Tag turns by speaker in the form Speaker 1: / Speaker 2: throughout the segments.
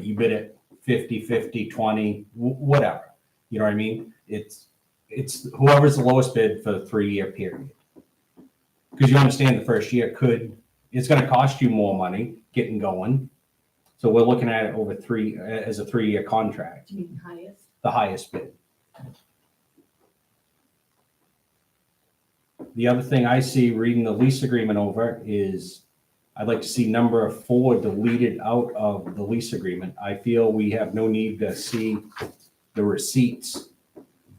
Speaker 1: you bid it 50, 50, 20, wh- whatever. You know what I mean? It's, it's whoever's the lowest bid for the three-year period. Because you understand the first year could, it's gonna cost you more money getting going. So we're looking at it over three, as a three-year contract,
Speaker 2: Do you mean highest?
Speaker 1: the highest bid. The other thing I see reading the lease agreement over is I'd like to see number four deleted out of the lease agreement. I feel we have no need to see the receipts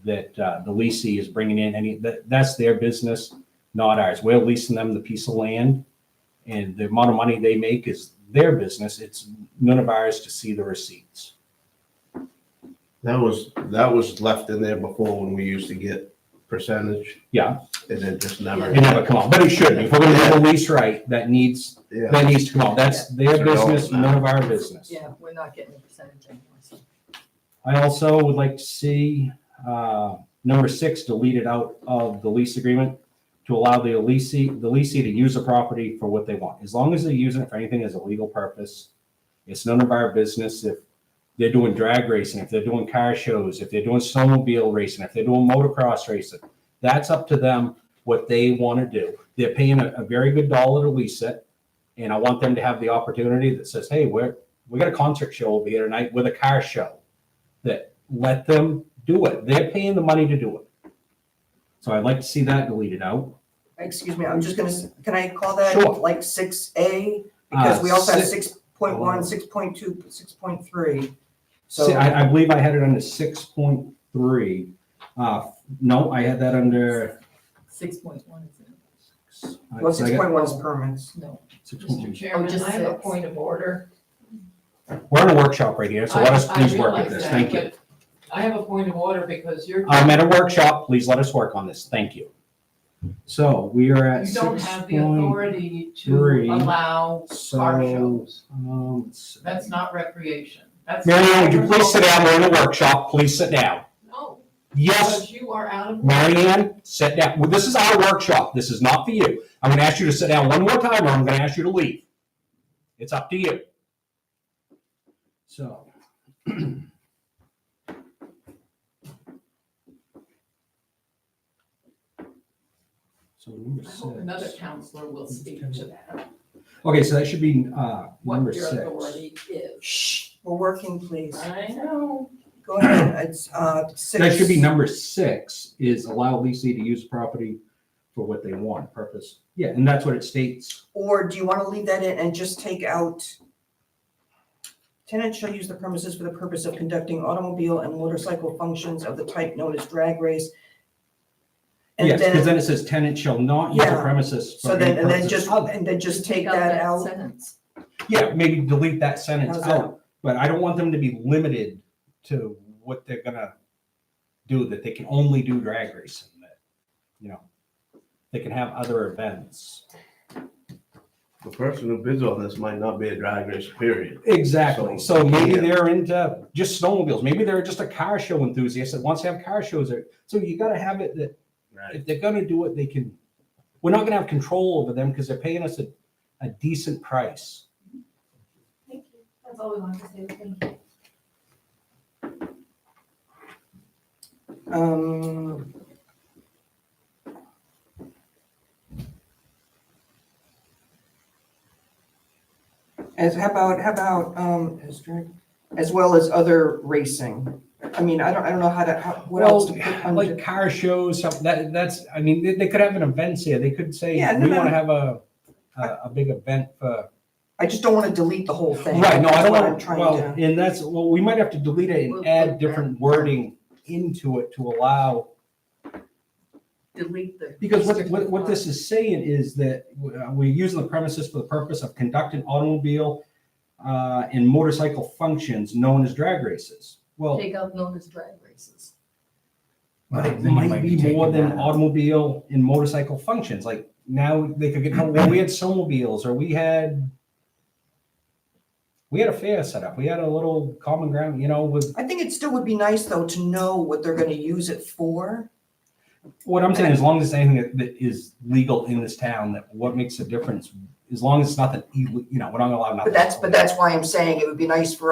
Speaker 1: that uh, the leasing is bringing in. Any, that, that's their business, not ours. We're leasing them the piece of land. And the amount of money they make is their business. It's none of ours to see the receipts.
Speaker 3: That was, that was left in there before when we used to get percentage.
Speaker 1: Yeah.
Speaker 3: And it just
Speaker 1: It
Speaker 3: never,
Speaker 1: never come out, but it should. If we're gonna do the lease right, that needs,
Speaker 3: yeah,
Speaker 1: that needs to come out. That's their business, none of our business.
Speaker 2: Yeah, we're not getting the percentage anymore. so.
Speaker 1: I also would like to see uh, number six deleted out of the lease agreement to allow the leasee, the leasee to use the property for what they want. As long as they're using it for anything as a legal purpose, it's none of our business if they're doing drag racing, if they're doing car shows, if they're doing snowmobile racing, if they're doing motocross racing. That's up to them what they want to do. They're paying a, a very good dollar to lease it. And I want them to have the opportunity that says, hey, we're, we got a concert show over here tonight with a car show let them do it. They're paying the money to do it. So I'd like to see that deleted out.
Speaker 4: Excuse me, I'm just gonna, s- can I call that
Speaker 1: Sure.
Speaker 4: like six A?
Speaker 1: Uh,
Speaker 4: Because we also have
Speaker 1: si-
Speaker 4: six point one, six point two, six point three.
Speaker 1: si-
Speaker 4: So,
Speaker 1: I, I believe I had it under six point three. Uh, no, I had that under. uh,
Speaker 2: Six point one is it?
Speaker 4: well, six point one is permits.
Speaker 2: No.
Speaker 1: Six
Speaker 5: Mr.
Speaker 1: point-
Speaker 5: Chairman,
Speaker 2: just
Speaker 5: I have a
Speaker 2: six.
Speaker 5: point of order.
Speaker 1: We're in a workshop right here, so let us
Speaker 5: I- I
Speaker 1: please work at
Speaker 5: realize
Speaker 1: this.
Speaker 5: that,
Speaker 1: Thank you. Uh,
Speaker 5: but I have a point of order because you're.
Speaker 1: I'm at a workshop. Please let us work on this. Thank you. So we are at
Speaker 5: You don't
Speaker 1: six
Speaker 5: have the
Speaker 1: point.
Speaker 5: authority to
Speaker 1: three.
Speaker 5: allow
Speaker 1: So,
Speaker 5: car shows.
Speaker 1: um, let's see.
Speaker 5: That's not recreation. That's.
Speaker 1: Mary Ann, would you please sit down? We're in a workshop. Please sit down.
Speaker 5: No,
Speaker 1: Yes,
Speaker 5: because you are out of.
Speaker 1: Mary Ann, sit down. Well, this is our workshop. This is not for you. I'm going to ask you to sit down one more time, or I'm going to ask you to leave. It's up to you. So. So number
Speaker 5: I hope another
Speaker 1: six.
Speaker 5: counselor will speak to that,
Speaker 1: Okay, so that should be uh, number
Speaker 5: what your
Speaker 1: six.
Speaker 5: authority is.
Speaker 4: Shh, we're working, please.
Speaker 5: I know.
Speaker 4: Go ahead, it's, uh, six.
Speaker 1: That should be number six, is allow leasing to use property for what they want, purpose. Yeah, and that's what it states.
Speaker 4: Or do you wanna leave that in and just take out? Tenant shall use the premises for the purpose of conducting automobile and motorcycle functions of the type known as drag race.
Speaker 1: Yes,
Speaker 4: And
Speaker 1: because
Speaker 4: then,
Speaker 1: then it says tenant shall not use the
Speaker 4: Yeah.
Speaker 1: premises. for
Speaker 4: so then,
Speaker 1: any
Speaker 4: and then
Speaker 1: purpose
Speaker 4: just,
Speaker 1: other-
Speaker 4: and then just take that out.
Speaker 2: Sentence.
Speaker 1: Yeah, maybe delete that sentence
Speaker 4: How's that?
Speaker 1: out, but I don't want them to be limited to what they're gonna do, that they can only do drag racing, that, you know, they can have other events.
Speaker 3: the person who bids on this might not be a drag race, period.
Speaker 1: Exactly, so maybe
Speaker 3: Yeah.
Speaker 1: they're into just snowmobiles, maybe they're just a car show enthusiast that wants to have car shows, there. so you gotta have it that
Speaker 3: Right.
Speaker 1: if they're gonna do it, they can, we're not gonna have control over them because they're paying us a, a decent price.
Speaker 6: Thank you. That's all we wanted to say. Thank you.
Speaker 4: Um. As, how about, how about, um, as drag- as well as other racing? I mean, I don't, I don't know how to, how, what else to put
Speaker 1: Well,
Speaker 4: under.
Speaker 1: like car shows, some- that, that's, I mean, they, they could have an event here. They could say,
Speaker 4: Yeah, no,
Speaker 1: we
Speaker 4: no,
Speaker 1: want to
Speaker 4: no.
Speaker 1: have a, a, a big event for.
Speaker 4: I just don't want to delete the whole thing.
Speaker 1: Right, no, I
Speaker 4: That's
Speaker 1: don't
Speaker 4: what I'm
Speaker 1: want,
Speaker 4: trying
Speaker 1: well,
Speaker 4: to-
Speaker 1: and that's, well, we might have to delete it
Speaker 2: We'll
Speaker 1: and
Speaker 2: put
Speaker 1: add
Speaker 2: that.
Speaker 1: different wording into it to allow,
Speaker 2: Delete the.
Speaker 1: because what, what, what this is saying is that uh, we're using the premises for the purpose of conducting automobile uh, and motorcycle functions known as drag races. Well,
Speaker 2: Take out known as drag races.
Speaker 1: But it might be more than automobile and motorcycle functions, like now they could get, well, we had snowmobiles, or we had. We had a fair set up, we had a little common ground, you know, with,
Speaker 4: I think it still would be nice though to know what they're gonna use it for.
Speaker 1: what I'm saying, as long as it's anything that- that is legal in this town, that what makes a difference? As long as it's nothing, ille- you know, we're not allowed nothing.
Speaker 4: But that's, but that's why I'm saying it would be nice for us.